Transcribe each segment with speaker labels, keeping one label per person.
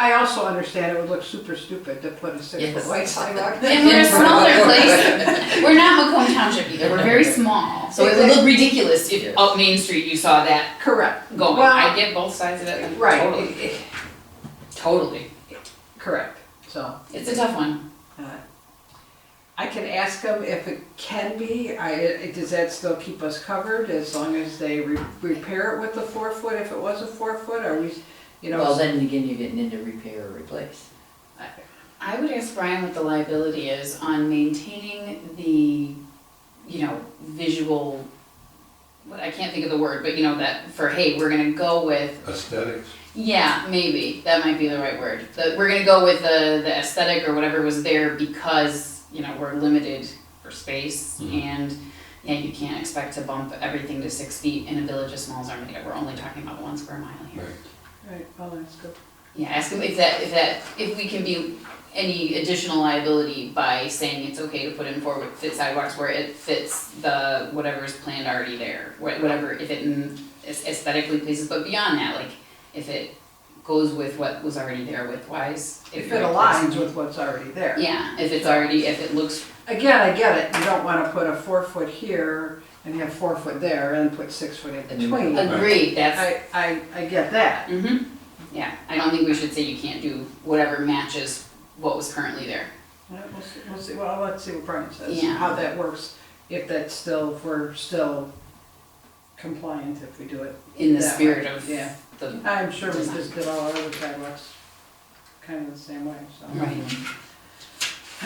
Speaker 1: I also understand it would look super stupid to put a six-foot
Speaker 2: Yes.
Speaker 1: wide sidewalk.
Speaker 3: And we're a smaller place. We're not Macomb Township either. We're very small.
Speaker 2: So it would look ridiculous if up
Speaker 3: Oh,
Speaker 2: Main Street you saw that
Speaker 1: Correct.
Speaker 2: going.
Speaker 1: Well,
Speaker 2: I get both sides of it.
Speaker 1: Right.
Speaker 2: Totally.
Speaker 1: it- it-
Speaker 2: Totally.
Speaker 1: Correct. So
Speaker 3: It's a tough one.
Speaker 1: I can ask them if it can be, I, does that still keep us covered as long as they re- repair it with the four foot, if it was a four foot, are we, you
Speaker 4: Well,
Speaker 1: know?
Speaker 4: then again, you're getting into repair or replace.
Speaker 3: I would ask Brian what the liability is on maintaining the, you know, visual, what, I can't think of the word, but you know, that for, hey, we're gonna go with
Speaker 5: Aesthetics.
Speaker 3: Yeah, maybe that might be the right word. The, we're gonna go with the the aesthetic or whatever was there because you know we're limited for space
Speaker 5: Mhm.
Speaker 3: and yeah, you can't expect to bump everything to six feet in a village as small as Armada. We're only talking about one square mile here.
Speaker 5: Right.
Speaker 1: Right, well, that's good.
Speaker 3: Yeah, ask him if that if that if we can be any additional liability by saying it's okay to put in forward fit sidewalks where it fits the whatever's planned already there, wha- whatever if it mm, is aesthetically pleases. But beyond that, like if it goes with what was already there width wise,
Speaker 1: If it aligns with what's already there.
Speaker 3: yeah, if it's already if it looks
Speaker 1: Again, I get it, you don't wanna put a four foot here and have four foot there and put six foot in
Speaker 4: And then-
Speaker 1: between.
Speaker 3: agreed, that's
Speaker 1: I, I, I get that,
Speaker 3: hmm yeah. I don't think we should say you can't do whatever matches what was currently there.
Speaker 1: Well, we'll see, we'll see, well, let's see what Brian says,
Speaker 3: Yeah.
Speaker 1: how that works, if that's still, if we're still compliant if we do it
Speaker 3: In the
Speaker 1: That way,
Speaker 3: spirit of
Speaker 1: yeah.
Speaker 3: the
Speaker 1: I'm sure we just did all our other sidewalks kind of the same way, so.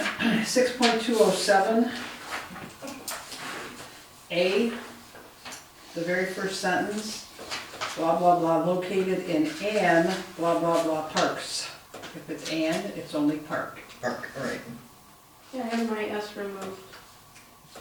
Speaker 3: right.
Speaker 1: Six point two oh seven. A, the very first sentence, blah, blah, blah, located in an, blah, blah, blah, parks. If it's an, it's only park.
Speaker 4: Park, all right.
Speaker 6: Yeah, I have my S removed.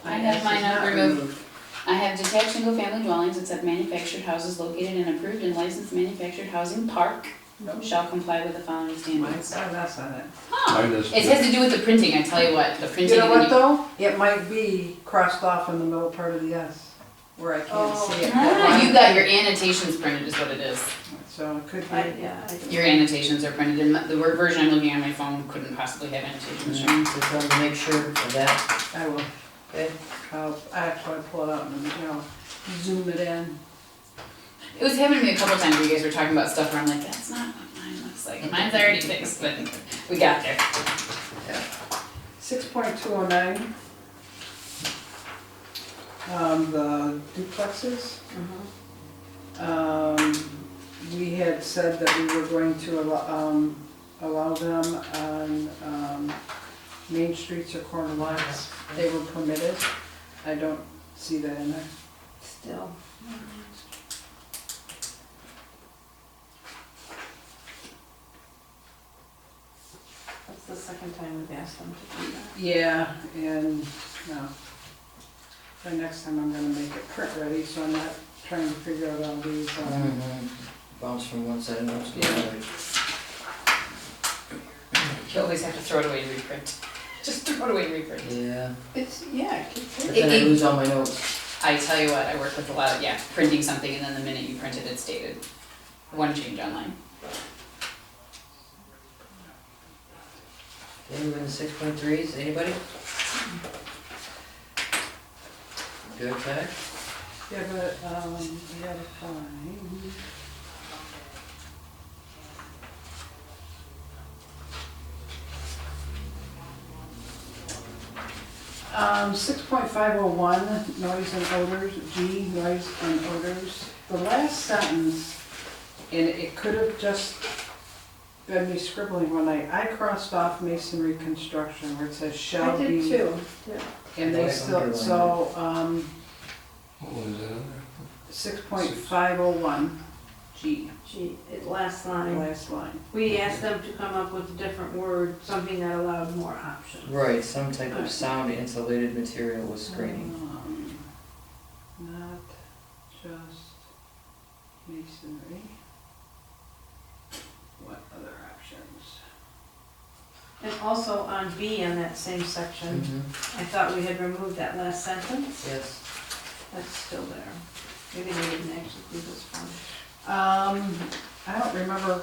Speaker 3: I have mine
Speaker 1: It's not
Speaker 3: not removed. I have detached single-family dwellings except manufactured houses located in approved and licensed manufactured housing park
Speaker 1: Nope.
Speaker 3: shall comply with the following
Speaker 1: Mine
Speaker 3: standards.
Speaker 1: saw that's on it.
Speaker 3: Huh.
Speaker 5: I just-
Speaker 3: It has to do with the printing, I tell you what, the printing.
Speaker 1: You know
Speaker 3: when
Speaker 1: what though? It might be crossed off in the middle part of the S, where I can't
Speaker 6: Oh.
Speaker 1: see it.
Speaker 3: Ah, you got your annotations printed is what it is.
Speaker 1: So it could
Speaker 6: I,
Speaker 1: be.
Speaker 6: yeah. I did.
Speaker 3: Your annotations are printed in, the word version I'm looking at on my phone couldn't possibly have annotations.
Speaker 4: So
Speaker 3: right?
Speaker 4: tell them to make sure of that.
Speaker 1: I will.
Speaker 4: Okay.
Speaker 1: I'll, I have to pull it out and, you know, zoom it in.
Speaker 3: It was happening to me a couple times, where you guys were talking about stuff where I'm like, that's not what mine looks like. Mine's already fixed, but we got there.
Speaker 1: Six point two oh nine. Um, the duplexes,
Speaker 6: Uh-huh.
Speaker 1: um, we had said that we were going to allow, um, allow them on, um, main streets or corner lots. They were permitted. I don't see that in there.
Speaker 6: Still. That's the second time we've asked them to do that.
Speaker 1: Yeah, and, no. By next time I'm gonna make it print ready, so I'm not trying to figure out all these, um,
Speaker 4: Mm-hmm. Bounce from one side and bounce to the other.
Speaker 3: You always have to throw it away and reprint. Just throw it away and reprint.
Speaker 4: Yeah,
Speaker 6: It's, yeah, it keeps
Speaker 4: but
Speaker 6: it.
Speaker 4: then I
Speaker 3: It- it-
Speaker 4: lose all my notes.
Speaker 3: I tell you what, I work with a lot of, yeah, printing something and then the minute you print it, it's dated. One change online.
Speaker 4: Anyone in six point threes, anybody? Good catch.
Speaker 1: yeah, but, um, we gotta find. Um, six point five oh one, noise and odors, G, noise and odors. The last sentence, and it could have just been me scribbling when I, I crossed off masonry construction where it says
Speaker 6: I
Speaker 1: shall be.
Speaker 6: did too.
Speaker 1: And they
Speaker 4: Nice
Speaker 1: still,
Speaker 4: underline.
Speaker 1: so, um,
Speaker 5: What was that on there?
Speaker 1: six point five oh one, G,
Speaker 6: Gee, it last
Speaker 1: the
Speaker 6: line.
Speaker 1: last line.
Speaker 6: We asked them to come up with a different word, something that allowed more options.
Speaker 4: Right, some type of sound insulated material with screening.
Speaker 1: Um, Not just masonry. What other options?
Speaker 6: And also on B in that same section,
Speaker 4: Mhm,
Speaker 6: I thought we had removed that last sentence.
Speaker 4: Yes.
Speaker 6: That's still there. Maybe they didn't actually do this one.
Speaker 1: Um, I don't remember